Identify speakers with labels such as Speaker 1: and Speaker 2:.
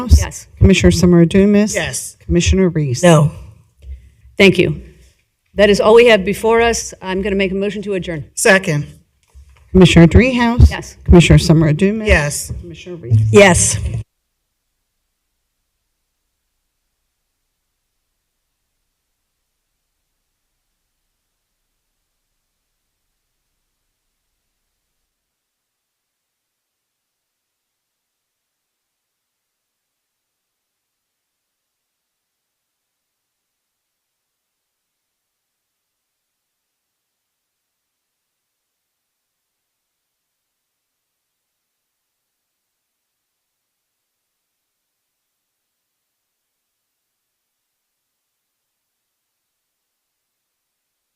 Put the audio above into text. Speaker 1: Yes.
Speaker 2: Commissioner Summer Adumas.
Speaker 3: Yes.
Speaker 2: Commissioner Reese.
Speaker 3: No.
Speaker 1: Thank you. That is all we have before us. I'm going to make a motion to adjourn.
Speaker 3: Second.
Speaker 2: Commissioner Dreehouse.
Speaker 1: Yes.
Speaker 2: Commissioner Summer Adumas.
Speaker 3: Yes.
Speaker 2: Commissioner Reese.
Speaker 3: Yes.